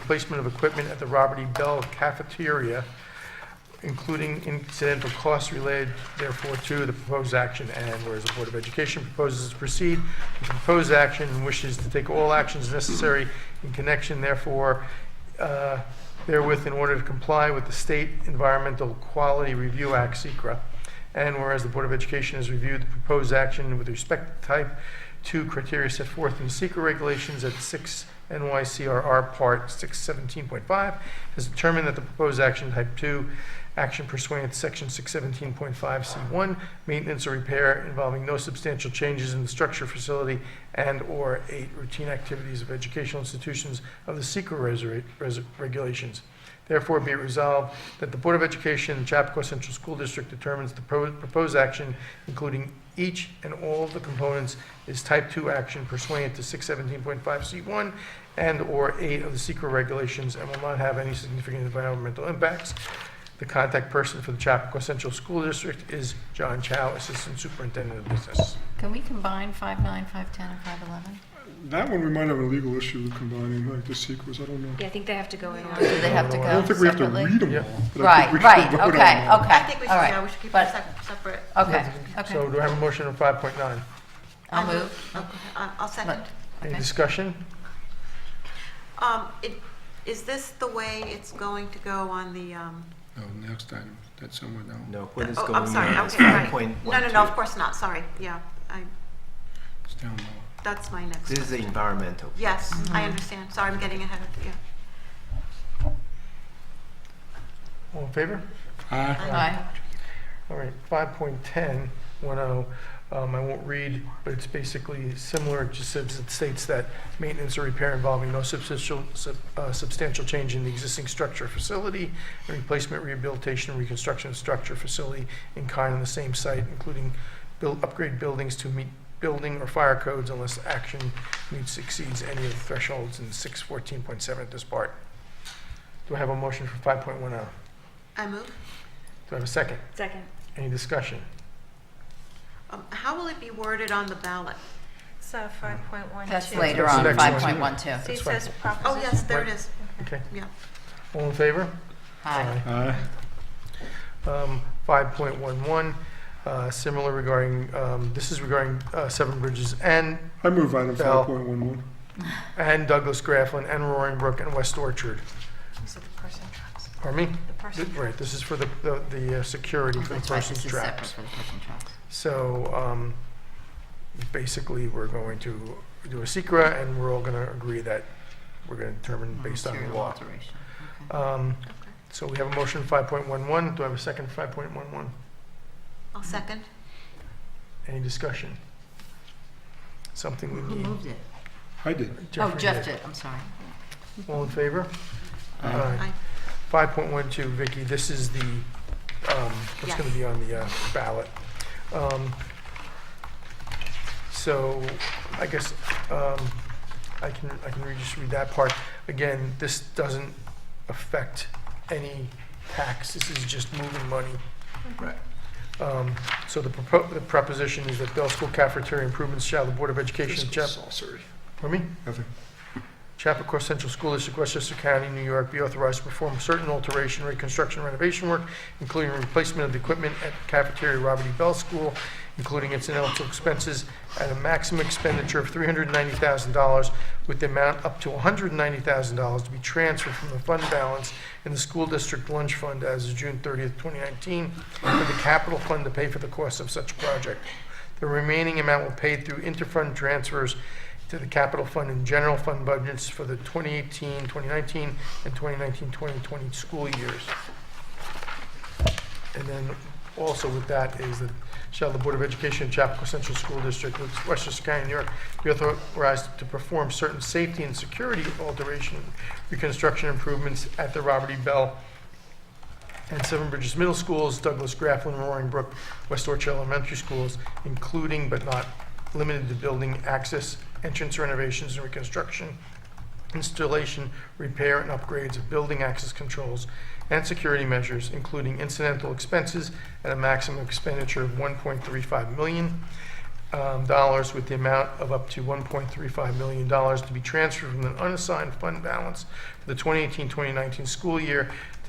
replacement of equipment at the Robert E. Bell Cafeteria, including incidental costs related therefore to the proposed action. And whereas the Board of Education proposes to proceed with the proposed action and wishes to take all actions necessary in connection therefore uh, therewith in order to comply with the State Environmental Quality Review Act, SECRA. And whereas the Board of Education has reviewed the proposed action with respect to type 2 criteria set forth in secret regulations at 6 NYCRR Part 617.5, has determined that the proposed action type 2, action pursuant to Section 617.5C1, maintenance or repair involving no substantial changes in the structure, facility, and/or 8 routine activities of educational institutions of the secret reser- res- regulations. Therefore, be it resolved that the Board of Education, and Chappaqua Central School District determines the pro- proposed action, including each and all of the components, is type 2 action pursuant to 617.5C1 and/or 8 of the secret regulations and will not have any significant environmental impacts. The contact person for the Chappaqua Central School District is John Chow, Assistant Superintendent of Business. Can we combine 5'9", 5'10", and 5'11"? That one, we might have a legal issue with combining like the sequels, I don't know. Yeah, I think they have to go in Do order. they have to I go I don't think we have to Oh, separately? read them Yeah. all. but I Right, think we should right, vote on okay, them all. I okay, think we all should, yeah, right. we should keep But- it sep- separate. Okay, okay. So um, do I have a motion on 5.9? I'll I move. Um, Okay, I- I'll second. Any Okay. discussion? Um, it- Is this the way it's going to go on the, um, No, Oh, next item, that's somewhere down. No, what is oh, going I'm on sorry, is okay, right. five point No, one no, two. no, of course not, sorry, yeah, I, It's down low. that's my next. This is the environmental. Yes, I Mm-hmm. understand, sorry, I'm getting ahead of you. All in favor? Aye. Aye. All right, 5.10, 10, um, I won't read, but it's basically similar, it just says, it states that maintenance or repair involving no substantial, sub- uh, substantial change in the existing structure or facility, and replacement, rehabilitation, and reconstruction of structure, or facility in kind on the same site, including build, upgrade buildings to meet building or fire codes unless action meets, exceeds any of the thresholds in 614.7 at this part. Do I have a motion for 5.10? Do I move. oh? I have a second? Second. Any discussion? Um, How will it be worded on the ballot? So uh, five point one two. That's later That's on, the next one. 5.12. See, it That's right. says Oh, proposition. yes, there it is, Okay. yeah. All in favor? Aye. Aye. Um, 5.11, uh, similar regarding, um, this is regarding uh, Seven Bridges and, I move item Bell. five point one one. and Douglas Grafflin and Roaring Brook and West Orchard. These are the person traps. Pardon me? The person Right, this is for the, the- the uh, security for the That's right, person's this is separate traps. for the person's traps. So um, basically, we're going to do a secret, and we're all going to agree that we're going to determine based on the Mm-hmm. Material law. alteration. Okay. Um, So we have a motion 5.11. Do I have a second for 5.11? I'll second. Any discussion? Something we Who need. moved it? I did. Mm-hmm. Oh, Jeffrey Jeff did. did, I'm sorry. All in favor? Aye. Aye. 5.12, Vicky, this is the, um, what's Yes. going to be on the uh, ballot. Um, So I guess um, I can, I can read- just read that part. Again, this doesn't affect any tax, this is just moving money. Right. Um, So the propo- the proposition is that Bell School cafeteria improvements shall the Board of Education, Fiscal Chap- saucery. pardon me? Nothing. Chappaqua Central School District, Westchester County, New York, be authorized to perform certain alteration, reconstruction, renovation work, including replacement of the equipment at cafeteria Robert E. Bell School, including incidental expenses at a maximum expenditure of $390,000, with the amount up to $190,000 to be transferred from the fund balance in the school district lunch fund as of June 30th, 2019, to the capital fund to pay for the cost of such project. The remaining amount will pay through interfund transfers to the capital fund and general fund budgets for the 2018, 2019, and 2019, 2020 school years. And then also with that is that shall the Board of Education, Chapco Central School District, Westchester County, New York, be authorized to perform certain safety and security alteration, reconstruction improvements at the Robert E. Bell and Seven Bridges Middle Schools, Douglas Grafflin, Roaring Brook, West Orchard Elementary Schools, including but not limited to building access, entrance renovations and reconstruction, installation, repair, and upgrades of building access controls and security measures, including incidental expenses at a maximum expenditure of 1.35 million, um, dollars with the amount of up to $1.35 million dollars to be transferred from an unassigned fund balance for the 2018-2019 school year